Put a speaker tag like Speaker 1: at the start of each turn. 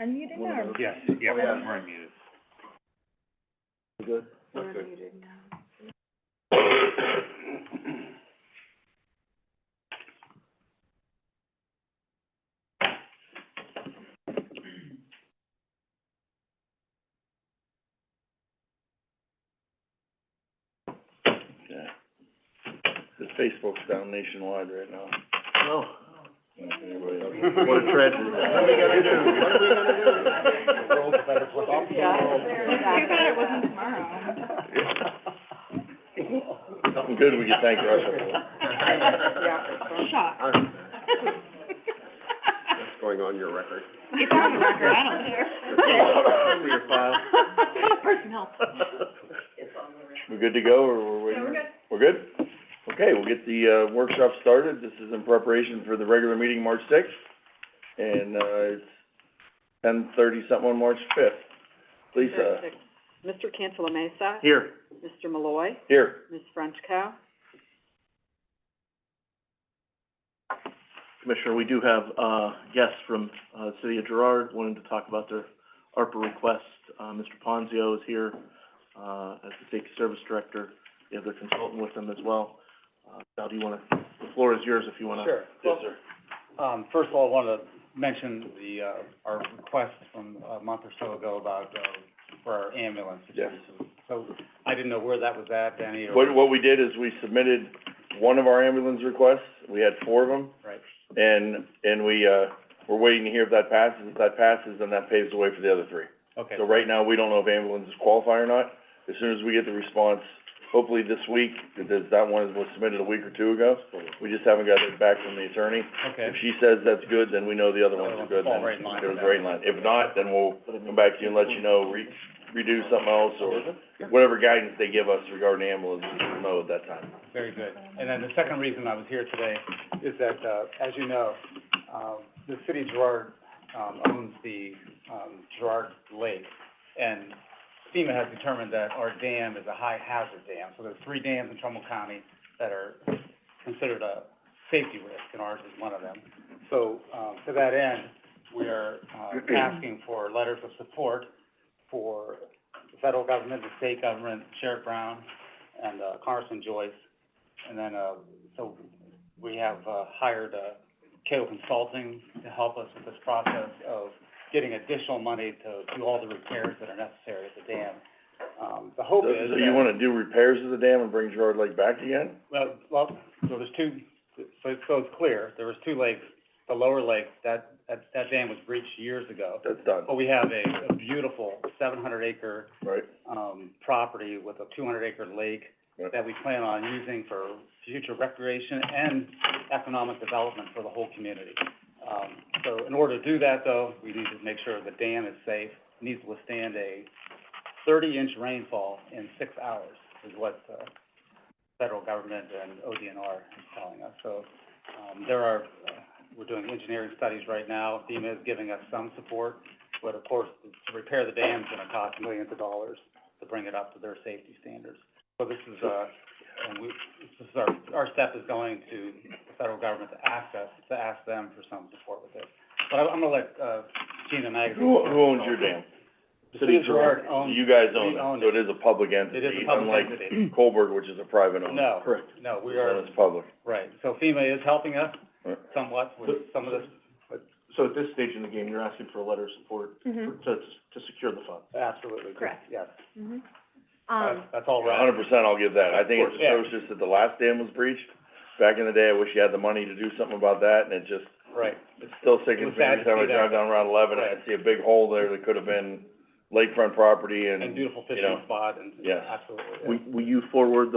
Speaker 1: Unmuted now or?
Speaker 2: Yes, yeah,
Speaker 1: Oh, yeah.
Speaker 2: we're muted.
Speaker 3: Good.
Speaker 1: We're unmuted now.
Speaker 3: Yeah. The Facebook's down nationwide right now. Oh. What a tragedy.
Speaker 2: What are we gonna do? What are we gonna do? The world's a better place.
Speaker 3: Stop the
Speaker 1: Yeah.
Speaker 3: world.
Speaker 1: Too bad it wasn't tomorrow.
Speaker 3: Something good we can thank Russia
Speaker 1: Shock.
Speaker 2: Going on your record.
Speaker 1: It's on the record, I don't care.
Speaker 2: Over your file.
Speaker 1: Personnel.
Speaker 3: for. We're good to go, or we're waiting? We're good? Okay, we'll get the, uh, workshop started. This is in preparation for the regular meeting, March sixth. And, uh, it's ten thirty something on March fifth. Lisa,
Speaker 1: Mr. Cantala Mesa,
Speaker 3: here,
Speaker 1: Mr. Malloy,
Speaker 3: here.
Speaker 1: Ms. Frenchco.
Speaker 4: Commissioner, we do have, uh, guests from, uh, the city of Gerard wanting to talk about their ARPA request. Uh, Mr. Ponzio is here, uh, as the safety service director. They have their consultant with them as well. Uh, Sal, do you wanna, the floor is yours if you wanna.
Speaker 5: Sure.
Speaker 4: Yes, sir.
Speaker 5: Um, first of all, I wanna mention the, uh, our request from a month or so ago about, uh, for our ambulance.
Speaker 3: Yes.
Speaker 5: So, I didn't know where that was at, Danny, or,
Speaker 3: What, what we did is we submitted one of our ambulance requests, we had four of them,
Speaker 5: right,
Speaker 3: and, and we, uh, we're waiting to hear if that passes. If that passes, then that paves the way for the other three.
Speaker 5: okay.
Speaker 3: So right now, we don't know if ambulances qualify or not. As soon as we get the response, hopefully this week, because that one was submitted a week or two ago. We just haven't got it back from the attorney.
Speaker 5: Okay,
Speaker 3: If she says that's good, then we know the other ones are good,
Speaker 5: Fall
Speaker 3: then
Speaker 5: right in line
Speaker 3: it was
Speaker 5: with that.
Speaker 3: right in line. If not, then we'll come back to you and let you know, re- redo something else or whatever guidance they give us regarding ambulances, we'll know at that time.
Speaker 5: very good. And then the second reason I was here today is that, uh, as you know, um, the city of Gerard, um, owns the, um, Gerard Lake. And FEMA has determined that our dam is a high hazard dam, so there's three dams in Trumbull County that are considered a safety risk, and ours is one of them. So, um, to that end, we are, uh, asking for letters of support for the federal government, the state government, Sheriff Brown, and, uh, Congressman Joyce. And then, uh, so we have, uh, hired, uh, Cato Consulting to help us with this process of getting additional money to do all the repairs that are necessary at the dam. Um, the hope
Speaker 3: So
Speaker 5: is
Speaker 3: so you
Speaker 5: that-
Speaker 3: wanna do repairs to the dam and bring Gerard Lake back again?
Speaker 5: well, well, so there's two, so, so it's clear, there was two lakes, the lower lake, that, that, that dam was breached years ago.
Speaker 3: That's done,
Speaker 5: But we have a, a beautiful seven hundred acre,
Speaker 3: right?
Speaker 5: um, property with a two hundred acre lake
Speaker 3: Right.
Speaker 5: that we plan on using for future recreation and economic development for the whole community. Um, so in order to do that though, we need to make sure the dam is safe, needs to withstand a thirty inch rainfall in six hours is what the federal government and ODNR is telling us. So, um, there are, uh, we're doing engineering studies right now. FEMA is giving us some support, but of course, to repair the dam is gonna cost millions of dollars to bring it up to their safety standards. So this is, uh, and we, this is our, our step is going to the federal government to ask us, to ask them for some support with this. But I'm, I'm gonna let, uh, Gina Magazine.
Speaker 3: Who, who owns your dam?
Speaker 5: The city of Gerard owns,
Speaker 3: You guys
Speaker 5: we
Speaker 3: own
Speaker 5: own
Speaker 3: it, so it is a public
Speaker 5: it is
Speaker 3: entity,
Speaker 5: a public
Speaker 3: unlike
Speaker 5: entity.
Speaker 3: Colberg, which is a private owner.
Speaker 5: No,
Speaker 4: Correct.
Speaker 5: no,
Speaker 3: This
Speaker 5: we
Speaker 3: one
Speaker 5: are,
Speaker 3: is public.
Speaker 5: right, so FEMA is helping us
Speaker 3: Right.
Speaker 5: somewhat with some of this,
Speaker 4: So at this stage in the game, you're asking for a letter of support for- to, to secure the funds.
Speaker 5: absolutely,
Speaker 1: Correct.
Speaker 5: yes,
Speaker 1: Mm-hmm.
Speaker 5: that's,
Speaker 1: Um,
Speaker 5: that's all
Speaker 3: A
Speaker 5: right,
Speaker 3: hundred percent, I'll give that. I think it's
Speaker 5: Of course.
Speaker 3: atrocious that the last dam was breached. Back in the day, I wish you had the money to do something about that, and it just,
Speaker 5: right,
Speaker 3: it still sickens me
Speaker 5: was sad
Speaker 3: every
Speaker 5: to
Speaker 3: time I
Speaker 5: see
Speaker 3: drive
Speaker 5: that.
Speaker 3: down Route eleven, and I see a big hole there that could have been lakefront property and,
Speaker 5: and beautiful
Speaker 3: you know,
Speaker 5: fishing spot and,
Speaker 3: yes.
Speaker 5: absolutely.
Speaker 4: Will, will you forward the